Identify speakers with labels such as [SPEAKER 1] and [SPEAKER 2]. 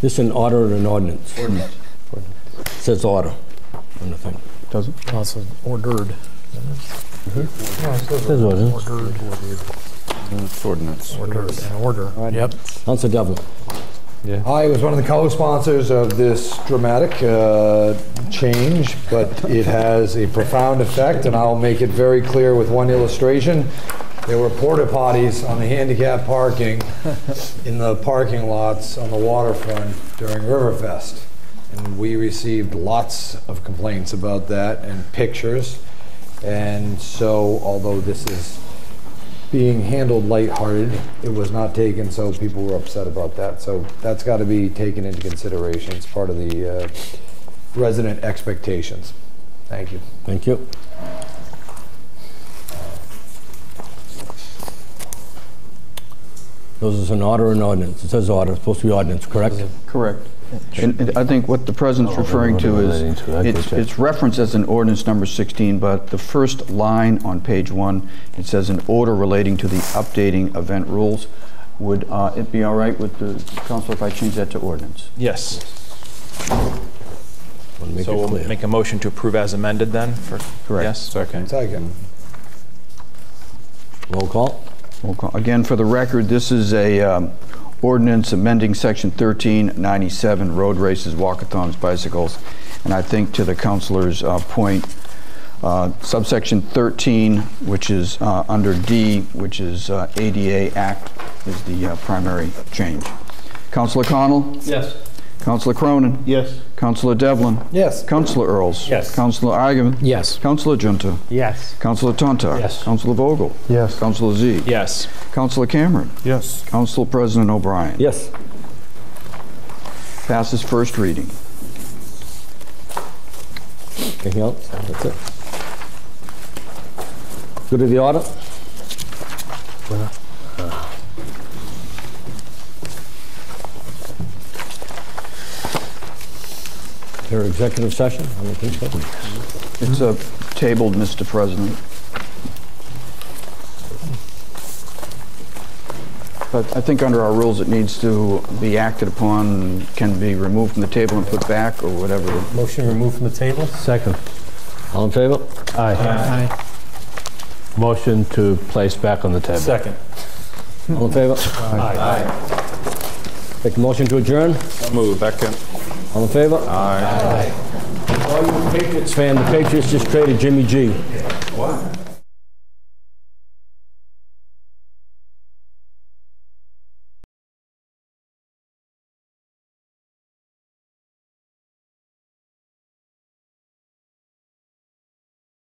[SPEAKER 1] This is an order or an ordinance?
[SPEAKER 2] Ordinance.
[SPEAKER 1] It Says order on the thing.
[SPEAKER 3] Does it?
[SPEAKER 4] Oh, it's ordered.
[SPEAKER 1] Says order.
[SPEAKER 4] Ordered,
[SPEAKER 3] It's ordinance.
[SPEAKER 4] ordered, an order. Yep.
[SPEAKER 1] Counsel Devlin.
[SPEAKER 2] I was one of the co-sponsors of this dramatic uh, change, but it has a profound effect, and I'll make it very clear with one illustration. There were porta potties on the handicap parking in the parking lots on the waterfront during Riverfest. And we received lots of complaints about that and pictures. And so, although this is being handled lighthearted. It was not taken, so people were upset about that. So that's got to be taken into consideration. It's part of the uh, resident expectations. Thank you.
[SPEAKER 1] Thank you. This is an order or an ordinance? It says order, it's supposed to be ordinance, correct?
[SPEAKER 3] Correct. And and I think what the president's referring to is, it's- it's referenced as an ordinance number 16, but the first line on page one, it says an order relating to the updating event rules. Would uh, it be all right with the council if I change that to ordinance?
[SPEAKER 5] Yes.
[SPEAKER 1] Wanna make
[SPEAKER 5] So
[SPEAKER 1] it
[SPEAKER 5] we'll
[SPEAKER 1] clear.
[SPEAKER 5] make a motion to approve as amended then for, yes?
[SPEAKER 3] Second.
[SPEAKER 2] Second.
[SPEAKER 1] Roll call?
[SPEAKER 3] Roll call. Again, for the record, this is a um, ordinance amending Section 1397, road races, walkathons, bicycles. And I think to the counselor's uh, point, uh, subsection 13, which is uh, under D, which is uh, ADA Act, is the uh, primary change. Counselor Connell?
[SPEAKER 5] Yes.
[SPEAKER 3] Counselor Cronin?
[SPEAKER 5] Yes.
[SPEAKER 3] Counselor Devlin?
[SPEAKER 2] Yes.
[SPEAKER 3] Counselor Earls?
[SPEAKER 4] Yes.
[SPEAKER 3] Counselor Agaman?
[SPEAKER 4] Yes.
[SPEAKER 3] Counselor Junta?
[SPEAKER 4] Yes.
[SPEAKER 3] Counselor Tontar?
[SPEAKER 4] Yes.
[SPEAKER 3] Counselor Vogel?
[SPEAKER 4] Yes.
[SPEAKER 3] Counselor Z?
[SPEAKER 5] Yes.
[SPEAKER 3] Counselor Cameron?
[SPEAKER 4] Yes.
[SPEAKER 3] Council President O'Brien.
[SPEAKER 1] Yes.
[SPEAKER 3] Passes first reading.
[SPEAKER 1] Anything else? That's it. Go to the order? Your executive session? I don't think so.
[SPEAKER 3] It's uh, tabled, Mr. President. But I think under our rules, it needs to be acted upon, can be removed from the table and put back, or whatever.
[SPEAKER 4] Motion removed from the table?
[SPEAKER 6] Second.
[SPEAKER 1] All in favor?
[SPEAKER 6] Aye. Motion to place back on the table.
[SPEAKER 4] Second.
[SPEAKER 1] All in favor?
[SPEAKER 4] Aye.
[SPEAKER 1] Make a motion to adjourn?
[SPEAKER 5] Move, second.
[SPEAKER 1] All in favor? Aye. All you Patriots fan, the Patriots just traded Jimmy G.